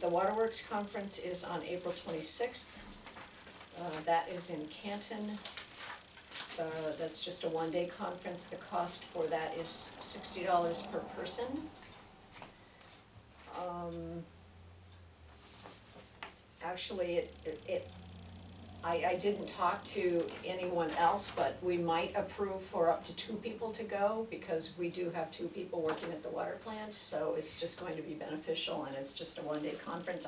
The Waterworks Conference is on April twenty-sixth. Uh, that is in Canton. Uh, that's just a one-day conference. The cost for that is sixty dollars per person. Um, actually, it, it- it, I, I didn't talk to anyone else, but we might approve for up to two people to go because we do have two people working at the water plant, so it's just going to be beneficial and it's just a one-day conference.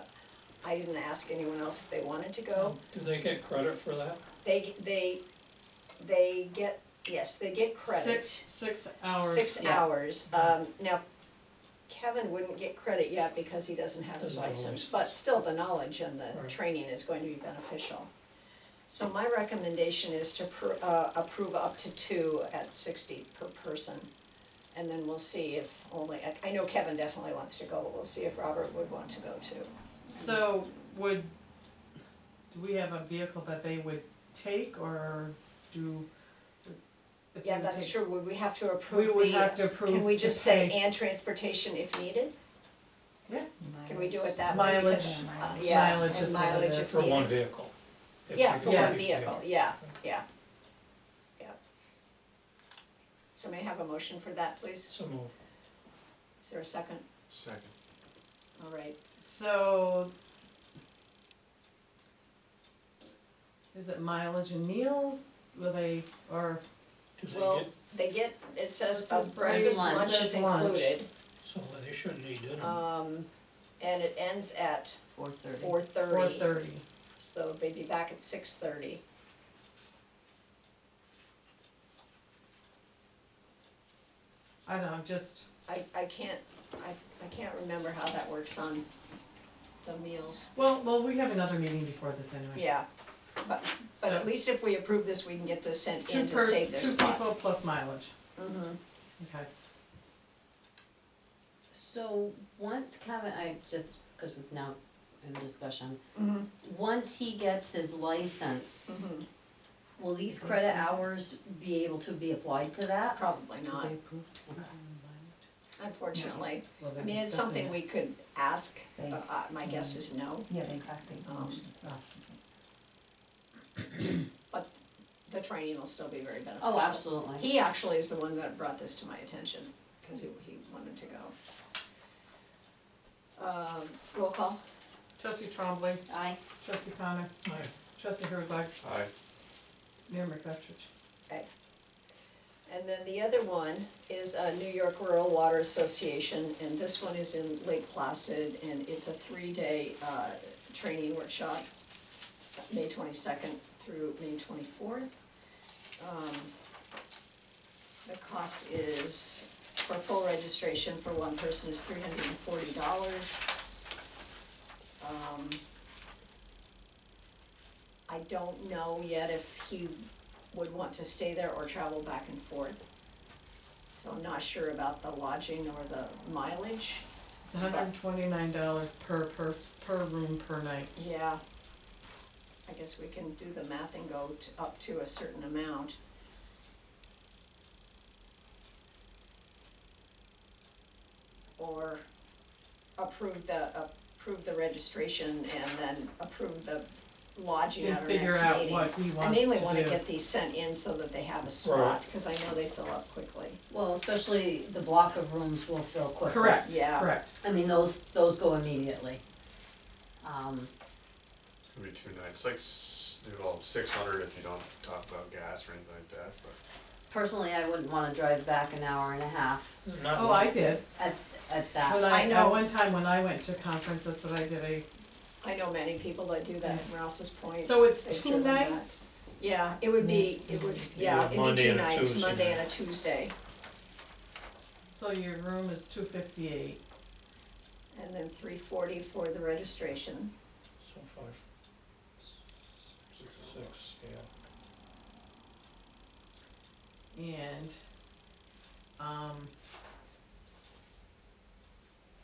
I didn't ask anyone else if they wanted to go. Do they get credit for that? They, they, they get, yes, they get credit. Six, six hours. Six yeah. Mm-hmm. hours. Um, now, Kevin wouldn't get credit yet because he doesn't have his Doesn't have a license, license. but still the knowledge and the Right. training is going to be beneficial. So my recommendation is to pr- uh, approve up to two at sixty per person. And then we'll see if only, I, I know Kevin definitely wants to go, but we'll see if Robert would want to go too. So would, do we have a vehicle that they would take or do? if they Yeah, would that's take- true. Would we have to approve the? We would have to approve. Can we to just say, pay and transportation if needed? Can we do it that way? Mileage. Because, uh, Mileage. Yeah, Mileage and is mileage another- if For one needed. vehicle? If Yeah, we for can one use the vehicle, yeah, yeah, yeah. So may I have a motion for that, please? So moved. Is there a second? Second. All right, So. Is it mileage and meals? Will they, or, Do they Well- get, they get, it says It uh, says breakfast, lunch. lunch is Says lunch. included. so they shouldn't eat dinner? Um, and it ends at Four thirty. four or thirty, thirty? so they'd be back at six thirty. I don't know, just, I, I can't, I, I can't remember how that works on the meals. well, well, we have another meeting before this Hmm. anyway. Yeah, but, but So- at least if we approve this, we can get this sent Two in to per, save two this spot. people plus mileage, Mhm. okay. So once Kevin, I just, cause we've now in the discussion, Mm-hmm. Mhm. once he gets his license, Mhm. will these credit hours be able to be applied to that? Probably not, Okay. unfortunately. Well, I they're mean, it's discussing something it. we could ask, They- but uh, my guess is no. Yeah, they talk, they Um, motion, so. The training will still be very beneficial. Oh, absolutely. He actually is the one that brought this to my attention, because he, he wanted to go. Um, roll call, Trustee Trombley, Aye. trustee Connor, Aye. trustee Herzog, Aye. Mayor McFetrich. and then the other one is uh, New York Rural Water Association, and this one is in Lake Placid, and it's a three-day uh, training workshop, May twenty-second through May twenty-fourth. Um, The cost is, for full registration for one person is three hundred and forty dollars. Um, I don't know yet if he would want to stay there or travel back and forth. So I'm not sure about the lodging or the mileage. It's hundred and twenty-nine dollars per pers- per room per night. Yeah. I guess we can do the math and go to, up to a certain amount. Or approve the, approve the registration and then approve the lodging And at our next meeting. figure out what he I wants to do. mainly wanna get these sent in so that they have a spot, cause I know they fill up quickly. Well, especially the block of rooms will fill quickly. Correct, Yeah. correct. I mean, those, those go immediately. Um, Could be two nights, like, s- well, six hundred if you don't talk about gas or anything like that, but personally, I wouldn't wanna drive back an hour and a half Not Oh, I did. at, at that. When I I, at know. one time when I went to conference, that's what I did. I, I know many people that do that from Rouse's Point. so it's They've two driven that. nights? Yeah, it would be, it would, yeah, Yeah, it'd be Monday two and a nights, Tuesday Monday night. and a Tuesday, So your room is two fifty-eight. and then three forty for the registration. So five, six, yeah. And, um,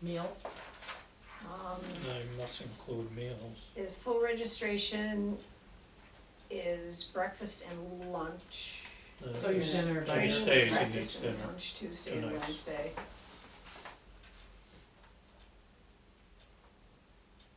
meals, Um, They must include meals. the full registration is breakfast and lunch. The- So your the dinner, Tuesdays by Training, and each breakfast and dinner. lunch, Tuesday and Two nights. Wednesday.